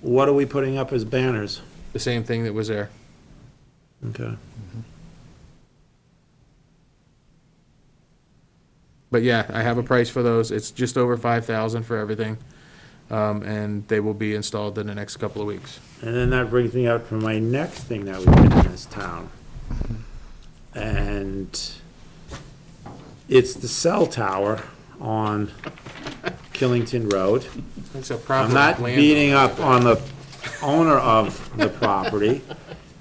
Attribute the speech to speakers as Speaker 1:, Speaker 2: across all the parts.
Speaker 1: What are we putting up as banners?
Speaker 2: The same thing that was there.
Speaker 1: Okay.
Speaker 2: But yeah, I have a price for those. It's just over five thousand for everything. Um, and they will be installed in the next couple of weeks.
Speaker 1: And then that brings me up to my next thing that we did in this town. And it's the cell tower on Killington Road.
Speaker 2: It's a
Speaker 1: I'm
Speaker 2: proper
Speaker 1: not
Speaker 2: landowner.
Speaker 1: beating up on the owner of the property.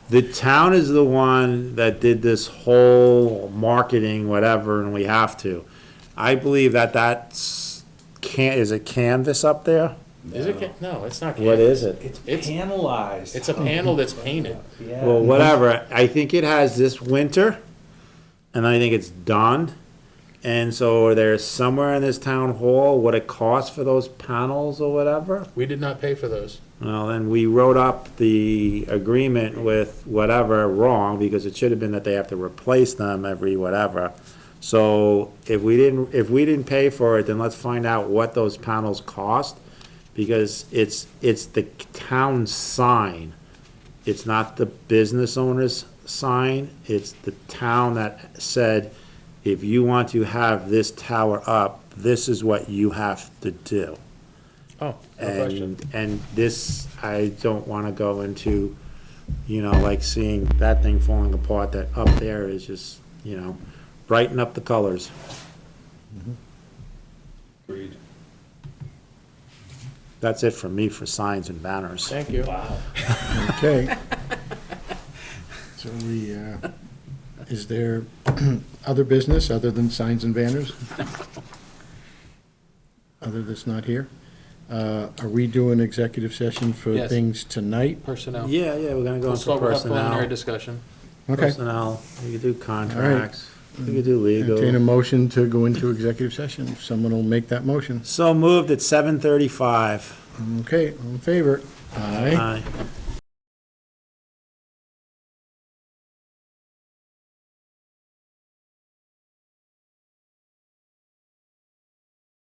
Speaker 1: The town is the one that did this whole marketing, whatever, and we have to. I believe that that's, can, is it canvas up there?
Speaker 2: Is it, ca- no, it's not.
Speaker 1: What is it?
Speaker 3: It's
Speaker 2: It's-
Speaker 3: panelized.
Speaker 2: It's a panel that's painted.
Speaker 3: Yeah.
Speaker 1: Well, whatever, I think it has this winter, and I think it's done. And so there's somewhere in this town hall what it costs for those panels or whatever.
Speaker 2: We did not pay for those.
Speaker 1: Well, then we wrote up the agreement with whatever wrong, because it should have been that they have to replace them every whatever. So if we didn't, if we didn't pay for it, then let's find out what those panels cost, because it's, it's the town sign. It's not the business owner's sign, it's the town that said, if you want to have this tower up, this is what you have to do.
Speaker 2: Oh, no question.
Speaker 1: And, and this, I don't wanna go into, you know, like seeing that thing falling apart, that up there is just, you know, brighten up the colors.
Speaker 3: Agreed.
Speaker 1: That's it for me for signs and banners.
Speaker 2: Thank you.
Speaker 3: Wow.
Speaker 4: Okay. So we, uh, is there other business other than signs and banners? Other that's not here? Uh, Are we doing executive session for
Speaker 2: Yes.
Speaker 4: things tonight?
Speaker 2: Personnel.
Speaker 1: Yeah, yeah, we're gonna go
Speaker 2: We'll
Speaker 1: into
Speaker 2: start with a preliminary
Speaker 1: personnel,
Speaker 2: discussion.
Speaker 4: Okay.
Speaker 1: personnel, we could do contracts, we could do
Speaker 4: Entertain a
Speaker 1: legal.
Speaker 4: motion to go into executive session. If Someone will make that motion.
Speaker 1: So moved at seven thirty-five. Uh,
Speaker 4: Okay, all in favor? Aye.
Speaker 1: Aye.